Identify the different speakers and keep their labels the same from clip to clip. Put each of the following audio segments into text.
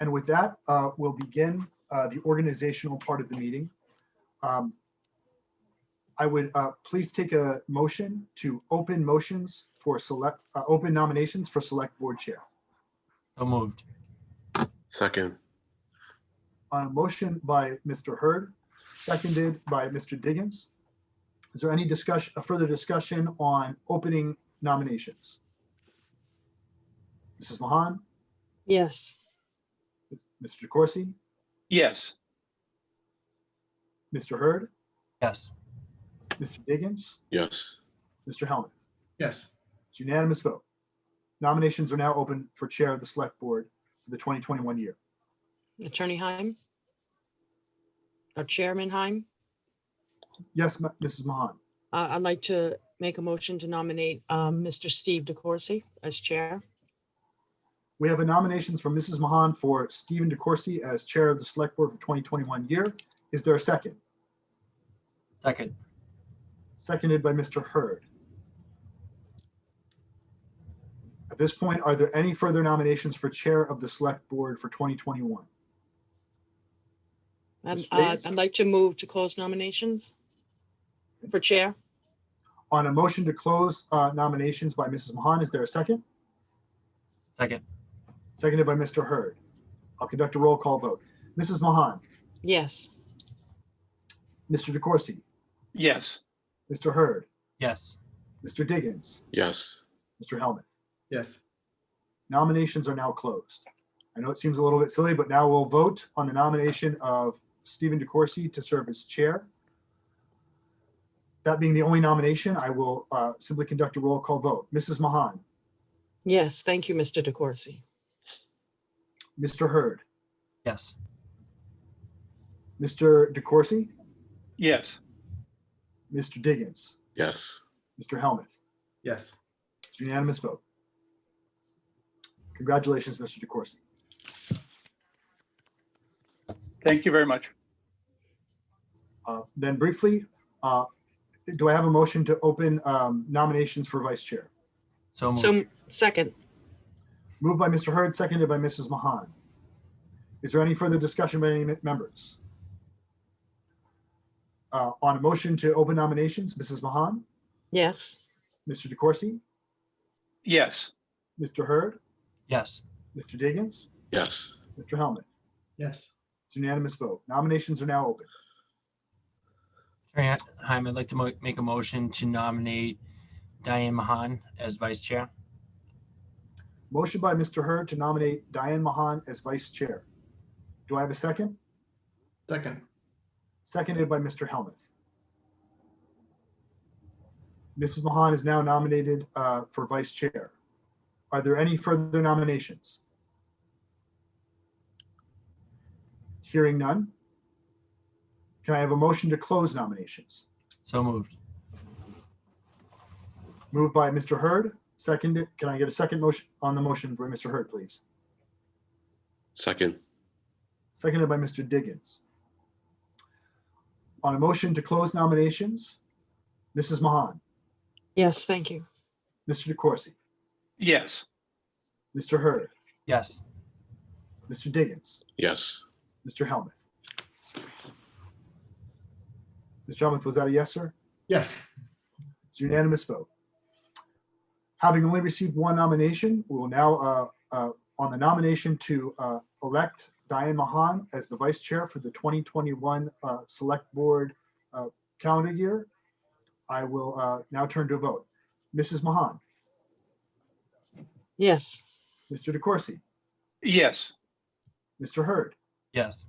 Speaker 1: And with that, uh, we'll begin uh, the organizational part of the meeting. Um, I would uh, please take a motion to open motions for select, uh, open nominations for Select Board Chair.
Speaker 2: So moved.
Speaker 3: Second,
Speaker 1: On a motion by Mr. Hurd, seconded by Mr. Diggins. Is there any discussion, a further discussion on opening nominations? Mrs. Mahan,
Speaker 4: Yes,
Speaker 1: Mr. Corsi,
Speaker 5: Yes,
Speaker 1: Mr. Hurd,
Speaker 2: Yes.
Speaker 1: Mr. Diggins,
Speaker 3: yes,
Speaker 1: Mr. Helmuth.
Speaker 6: yes,
Speaker 1: It's unanimous vote. Nominations are now open for Chair of the Select Board for the 2021 year.
Speaker 4: Attorney Heim? Or Chairman Heim?
Speaker 1: Yes, Ma- Mrs. Mahan.
Speaker 4: Uh, I'd like to make a motion to nominate um, Mr. Steve DeCoursey as chair.
Speaker 1: We have a nominations from Mrs. Mahan for Stephen DeCoursey as Chair of the Select Board for 2021 year. Is there a second?
Speaker 2: Second.
Speaker 1: Seconded by Mr. Hurd. At this point, are there any further nominations for Chair of the Select Board for 2021?
Speaker 4: And
Speaker 1: Ms.
Speaker 4: uh,
Speaker 1: Reyes?
Speaker 4: I'd like to move to close nominations for chair.
Speaker 1: On a motion to close uh, nominations by Mrs. Mahan, is there a second?
Speaker 2: Second.
Speaker 1: Seconded by Mr. Hurd. I'll conduct a roll call vote. Mrs. Mahan,
Speaker 4: Yes,
Speaker 1: Mr. DeCoursey,
Speaker 5: yes,
Speaker 1: Mr. Hurd,
Speaker 2: Yes.
Speaker 1: Mr. Diggins,
Speaker 3: yes,
Speaker 1: Mr. Hellman.
Speaker 6: yes,
Speaker 1: Nominations are now closed. I know it seems a little bit silly, but now we'll vote on the nomination of Stephen DeCoursey to serve as chair. That being the only nomination, I will uh, simply conduct a roll call vote. Mrs. Mahan,
Speaker 4: yes, thank you, Mr. DeCoursey.
Speaker 1: Mr. Hurd,
Speaker 2: Yes.
Speaker 1: Mr. DeCoursey,
Speaker 5: yes,
Speaker 1: Mr. Diggins,
Speaker 3: yes,
Speaker 1: Mr. Helmuth.
Speaker 6: yes.
Speaker 1: It's a unanimous vote. Congratulations, Mr. DeCoursey.
Speaker 5: thank you very much.
Speaker 1: Uh, Then briefly, uh, do I have a motion to open um, nominations for vice chair?
Speaker 2: So moved.
Speaker 4: So second,
Speaker 1: Moved by Mr. Hurd, seconded by Mrs. Mahan. Is there any further discussion by any members? Uh, On a motion to open nominations, Mrs. Mahan,
Speaker 4: yes,
Speaker 1: Mr. DeCoursey,
Speaker 5: Yes,
Speaker 1: Mr. Hurd,
Speaker 2: Yes.
Speaker 1: Mr. Diggins,
Speaker 3: yes,
Speaker 1: Mr. Helmut.
Speaker 6: Yes,
Speaker 1: It's a unanimous vote. Nominations are now open.
Speaker 2: Attorney Heim, I'd like to mo- make a motion to nominate Diane Mahan as vice chair.
Speaker 1: Motion by Mr. Hurd to nominate Diane Mahan as vice chair. Do I have a second?
Speaker 6: second,
Speaker 1: Seconded by Mr. Helmuth. Mrs. Mahan is now nominated uh, for vice chair. Are there any further nominations? Hearing none. Can I have a motion to close nominations?
Speaker 2: So moved.
Speaker 1: Moved by Mr. Hurd, seconded. Can I get a second motion on the motion by Mr. Hurd, please?
Speaker 3: second,
Speaker 1: Seconded by Mr. Diggins. On a motion to close nominations, Mrs. Mahan,
Speaker 4: yes, thank you.
Speaker 1: Mr. DeCoursey,
Speaker 5: yes,
Speaker 1: Mr. Hurd,
Speaker 2: Yes.
Speaker 1: Mr. Diggins,
Speaker 3: yes,
Speaker 1: Mr. Helmuth. Mr. Helmuth, was that a yes, sir?
Speaker 6: yes,
Speaker 1: It's a unanimous vote. Having only received one nomination, we will now, uh, uh, on the nomination to uh, elect Diane Mahan as the vice chair for the 2021 uh, Select Board uh, calendar year, I will uh, now turn to a vote. Mrs. Mahan,
Speaker 4: Yes,
Speaker 1: Mr. DeCoursey,
Speaker 5: yes,
Speaker 1: Mr. Hurd,
Speaker 2: Yes.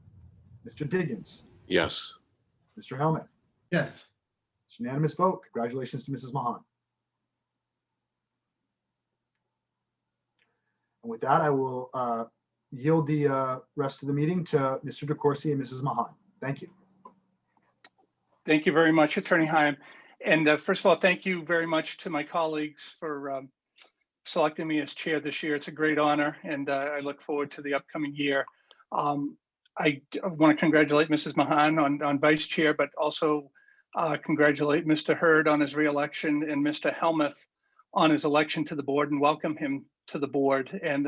Speaker 1: Mr. Diggins,
Speaker 3: yes,
Speaker 1: Mr. Helmuth.
Speaker 6: yes.
Speaker 1: It's an unanimous vote. Congratulations to Mrs. Mahan. And with that, I will uh, yield the uh, rest of the meeting to Mr. DeCoursey and Mrs. Mahan. Thank you.
Speaker 5: thank you very much, Attorney Heim. And uh, first of all, thank you very much to my colleagues for um, selecting me as chair this year. It's a great honor, and uh, I look forward to the upcoming year. Um, I want to congratulate Mrs. Mahan on, on vice chair, but also uh, congratulate Mr. Hurd on his reelection and Mr. Helmuth on his election to the board and welcome him to the board. And